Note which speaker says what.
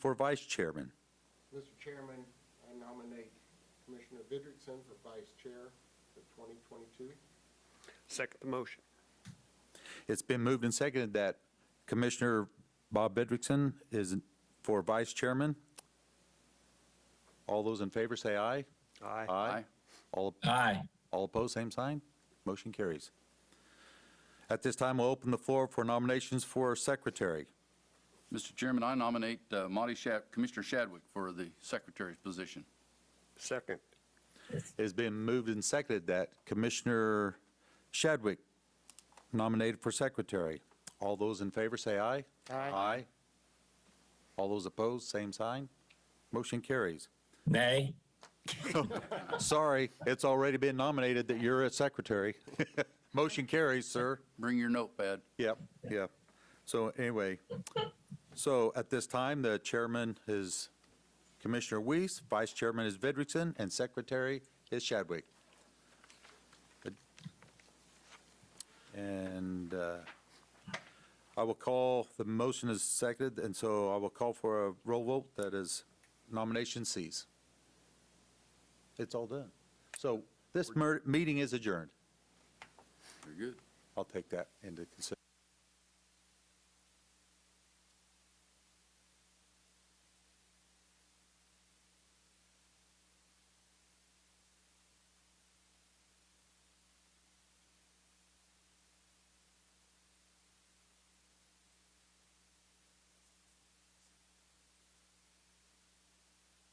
Speaker 1: for vice chairman.
Speaker 2: Mr. Chairman, I nominate Commissioner Vidrickson for Vice Chair for 2022.
Speaker 3: Second the motion.
Speaker 1: It's been moved and seconded that Commissioner Bob Bedrickson is for vice chairman. All those in favor say aye.
Speaker 3: Aye.
Speaker 1: All,
Speaker 4: Aye.
Speaker 1: all opposed, same sign. Motion carries. At this time, we'll open the floor for nominations for secretary.
Speaker 5: Mr. Chairman, I nominate uh, Monty Shad, Commissioner Shadwick for the secretary's position.
Speaker 3: Second.
Speaker 1: It has been moved and seconded that Commissioner Shadwick nominated for secretary. All those in favor say aye. Aye. All those opposed, same sign. Motion carries.
Speaker 4: Nay.
Speaker 1: Sorry, it's already been nominated that you're a secretary. Motion carries, sir.
Speaker 5: Bring your notepad.
Speaker 1: Yep, yep. So anyway, so at this time, the chairman is Commissioner Weiss, vice chairman is Vidrickson, and secretary is Shadwick. Good. And uh, I will call, the motion is seconded, and so I will call for a roll vote that is nomination cease. It's all done. So this mer- meeting is adjourned.
Speaker 5: Very good.
Speaker 1: I'll take that into consideration.